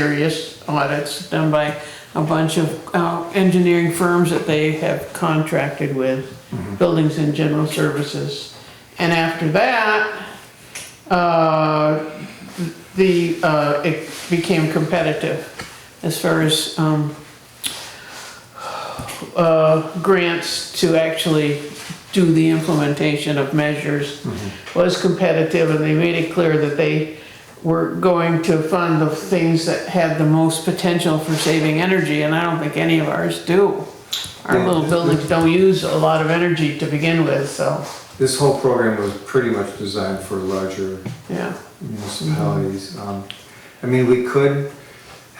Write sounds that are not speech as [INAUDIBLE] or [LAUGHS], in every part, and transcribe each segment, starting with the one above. serious audits done by a bunch of uh, engineering firms that they have contracted with, buildings and general services. And after that, uh, the, uh, it became competitive as far as um, uh, grants to actually do the implementation of measures was competitive, and they made it clear that they were going to fund the things that had the most potential for saving energy, and I don't think any of ours do. Our Yeah. little buildings don't use a lot of energy to begin with, so, This whole program was pretty much designed for larger yeah. municipalities. Um, I mean, we could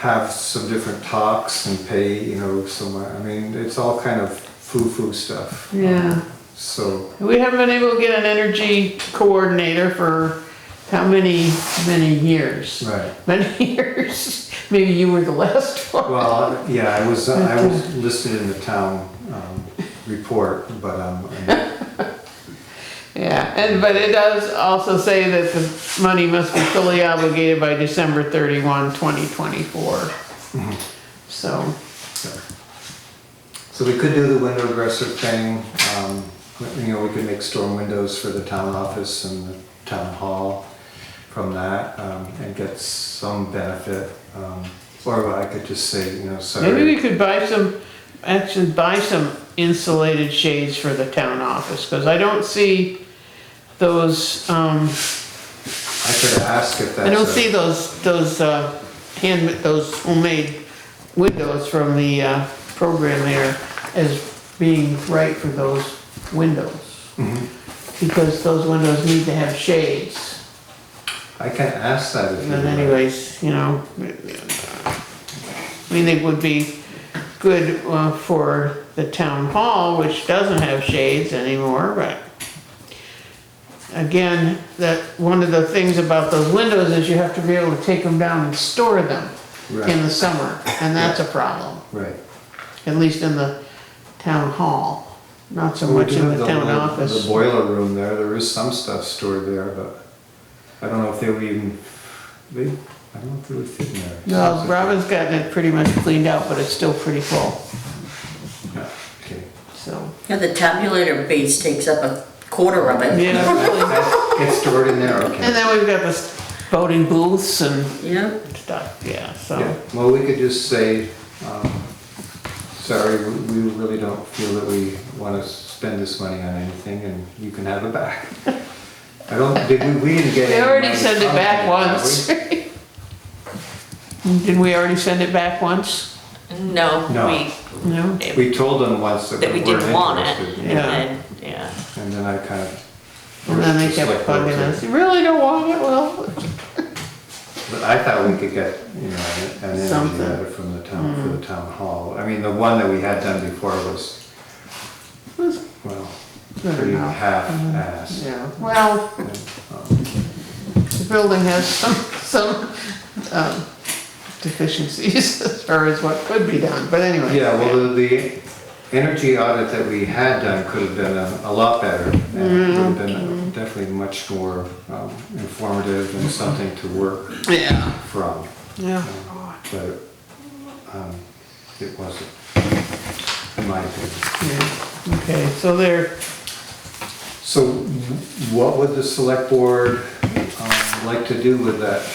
have some different talks and pay, you know, some, I mean, it's all kind of foo-foo stuff. Um, Yeah. So, We haven't been able to get an energy coordinator for how many, many years? right. Many [LAUGHS] years, maybe you were the last one. Well, yeah, I was, I was listed in the town um, report, but, um, I- Yeah, and, but it does also say that the money must be fully obligated by December thirty-one, twenty twenty-four. So, so we could do the window dresser thing. um, You know, we could make storm windows for the town office and the town hall from that um, and get some benefit. um, Or I could just say, you know, maybe sorry. we could buy some, actually buy some insulated shades for the town office, cause I don't see those, um, I could ask if that's. I don't a- see those, those, uh, hand, those homemade windows from the, uh, program there as being right for those windows. Mhm. Because those windows need to have shades. I can ask that if you But want. anyways, you know, I mean, it would be good uh, for the town hall, which doesn't have shades anymore, but again, that, one of the things about those windows is you have to be able to take them down and store them in Right, the summer, and that's a problem, right. at least in the town hall, not so We much do in have the town little- office. The boiler room there, there is some stuff stored there, but I don't know if they would even, they, I don't know if they would fit in there. No, Robin's gotten it pretty much cleaned out, but it's still pretty full, Yeah, okay. so. Yeah, the tabulator base takes up a quarter of it. Yeah, really. It's stored in there, okay. And then we've got the voting booths and Yeah, stuff, yeah, Yeah, so. well, we could just say, um, sorry, we we really don't feel that we want to spend this money on anything and you can have it back. I don't, did we, we didn't get They any already money sent it from back them, did once. we? [LAUGHS] Didn't we already send it back once? No, No. we, No? We told them once that that we we weren't didn't want it. interested. And Yeah. then, yeah. And then I kind of. And then they just kept like bugging looked at us, you really don't want it, well, But I thought we could get, you know, an energy Something. Hmm. letter from the town, for the town hall. I mean, the one that we had done before was, Was- well, I don't pretty know. Uh-huh. half-assed. Yeah, well, And, um, the building has some, some um, deficiencies [LAUGHS] as far as what could be done, but anyway. Yeah, well, the- the energy audit that we had done could have been a a lot better. and it Would have been definitely much more um, informative and something to work Yeah. from, Yeah. but um, it wasn't, in my opinion. Yeah. Okay, so there, So what would the select board um, like to do with that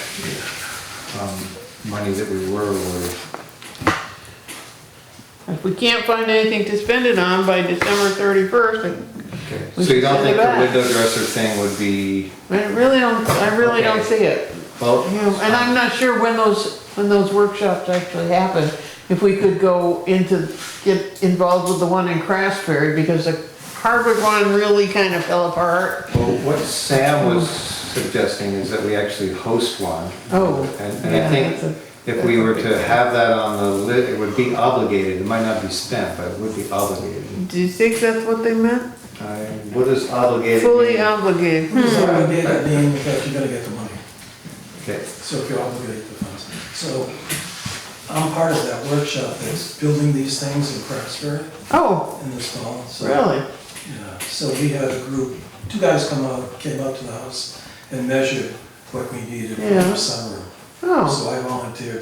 um, money that we were awarded? if we can't find anything to spend it on by December thirty-first, Okay, We So you don't should send think it the back. window dresser thing would be, I really don't, I really don't see it. well, You know, And I'm not sure when those, when those workshops actually happen. If we could go into, get involved with the one in Craftsberry, because the Harvard one really kind of fell apart. well, what Sam was suggesting is that we actually host one. Oh, And and yeah, I that's think a- if we were to have that on the list, it would be obligated, it might not be spent, but it would be obligated. Do you think that's what they meant? I- What is obligated? Fully mean? obligated. It's not gonna be that being that you gotta get the money, Okay, so if you're obligated to funds. So I'm part of that workshop that's building these things in Craftsbury Oh, in this fall, so. really? Yeah, so we had a group, two guys come out, came up to the house and measured what we needed for Yeah. the sunroom. Oh. So I volunteered